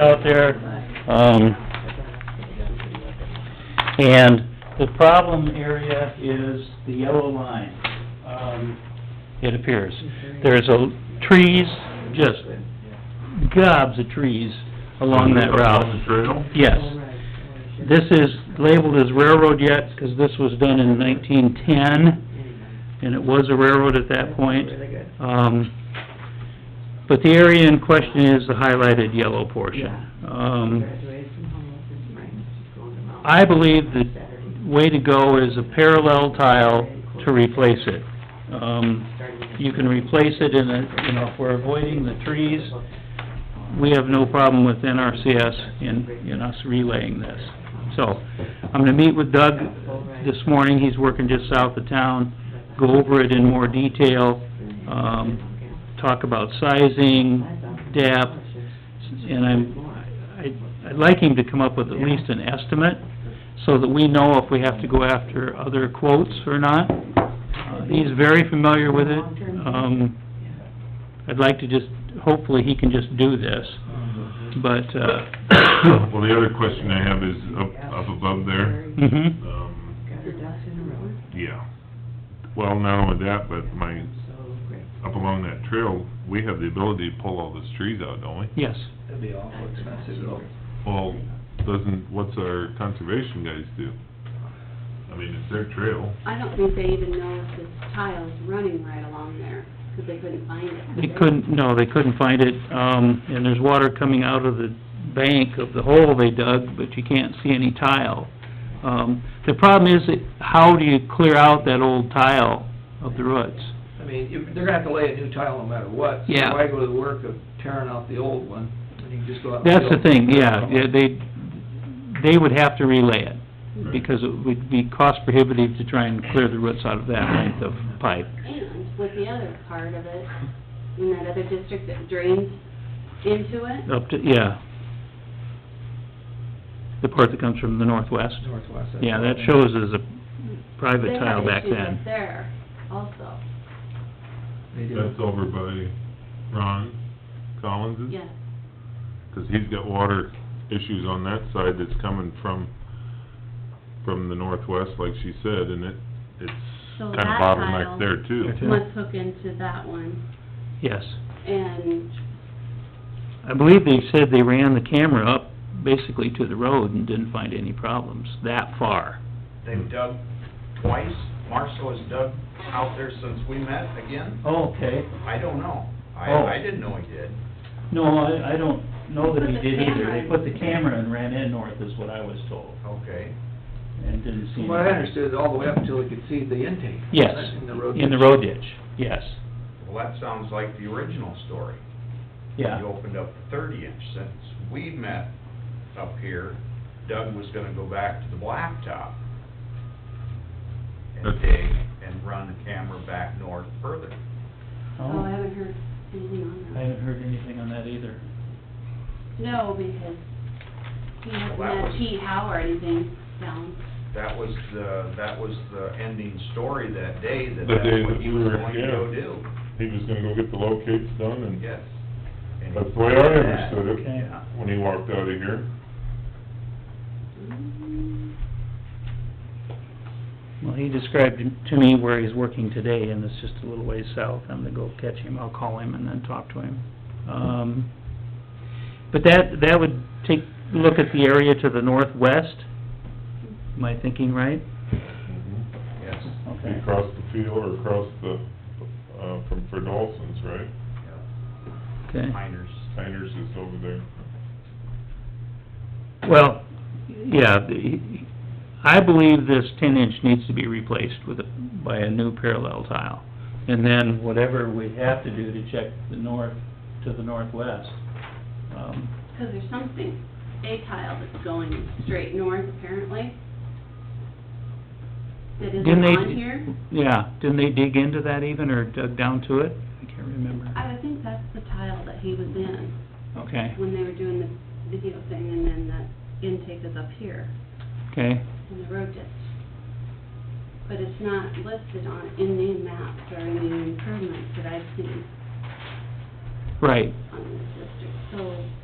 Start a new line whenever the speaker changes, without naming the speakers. out there, um, and the problem area is the yellow line, um, it appears. There's a, trees, just gobs of trees along that
On the
route,
trail?
yes. This is labeled as railroad yet, 'cause this was done in nineteen ten, and it was a railroad at that point. Um, but the area in question is the highlighted yellow portion. Um, I believe the way to go is a parallel tile to replace it. Um, you can replace it in a, you know, if we're avoiding the trees, we have no problem with NRCS in, in us relaying this. So, I'm gonna meet with Doug this morning, he's working just south of town, go over it in more detail, um, talk about sizing, depth, and I'm, I- I'd like him to come up with at least an estimate, so that we know if we have to go after other quotes or not. Uh, He's very familiar with it, um, I'd like to just, hopefully he can just do this, but, uh,
Well, the other question I have is up, up above there,
mhm,
um, yeah. Well, not only that, but my, up along that trail, we have the ability to pull all those trees out, don't we?
yes.
That'd be awful expensive though.
Well, doesn't, what's our conservation guys do? I mean, it's their trail.
I don't think they even know if this tile's running right along there, because they couldn't find it.
They couldn't, no, they couldn't find it, um, and there's water coming out of the bank of the hole they dug, but you can't see any tile. Um, the problem is, that how do you clear out that old tile of the roots?
I mean, you- they're gonna have to lay a new tile no matter what. so
Yeah.
Why go to the work of tearing out the old one, when you can just go out and...
That's the
build-
thing, yeah, yeah, they, they would have to relay it, because it would be cost prohibitive to try and clear the roots out of that length of pipe.
And with the other part of it, in that other district that drains into it,
Up to, yeah. The part that comes from the northwest.
Northwest. that's
Yeah,
what
that
I mean.
shows as a
they
private
have
tile back
issues up
then.
there also,
They do.
That's over by Ron
Hmm?
Collins's?
yes.
Because he's got water issues on that side that's coming from, from the northwest, like she said, and it, it's
So
kind
that
of
tile-
bottleneck there too.
Okay. Yeah.
Must hook into that one,
Yes.
and,
I believe they said they ran the camera up basically to the road and didn't find any problems that far.
They've dug twice. Marshall has dug out there since we met again.
Okay.
I don't know.
Oh.
I, I didn't know he did.
No, I, I don't know that he
Put the
did either.
camera.
They put the camera and ran in north is what I was told,
Okay.
and didn't see
From what I
anything.
understood, all the way up until we could see the intake.
Yes,
In the road.
in the road ditch, yes,
Well, that sounds like the original story. You
yeah.
opened up the thirty inch since we met up here. Doug was gonna go back to the blacktop and
That's-
dig and run the camera back north further.
oh, I
Oh,
haven't heard anything on
I
that.
haven't heard anything on that either.
No, because he hasn't
Well, that
had
was-
T. Howe or anything down.
That was the, that was the ending story that day, that
The day
that's
that
what he
we
was
were-
going to go
yeah.
do.
He was gonna go get the locates done and
Yes. And he
that's the way I
did that.
understood it
Okay.
Yeah.
when he walked out of here.
Mm,
Well, he described to me where he's working today, and it's just a little ways south. I'm gonna go catch him, I'll call him and then talk to him. Um, but that, that would take, look at the area to the northwest, am I thinking right?
Yes.
He crossed the field or across the, uh, from Ferdolson's, right?
Yeah.
Okay.
Miners.
Steiner's is over there.
Well, yeah, the- I believe this ten inch needs to be replaced with, a- by a new parallel tile. And then whatever we have to do to check the north, to the northwest. Um,
'cause there's something, a tile that's going straight north apparently. That
Didn't
isn't
they-
on here.
Yeah, didn't they dig into that even, or dug down to it? I can't remember.
I would think that's the tile that he was in
Okay,
when they were doing the video thing, and then that intake is up here
okay,
in the road ditch. But it's not listed on, in the maps or in the improvements that I've seen
right.
on this district, so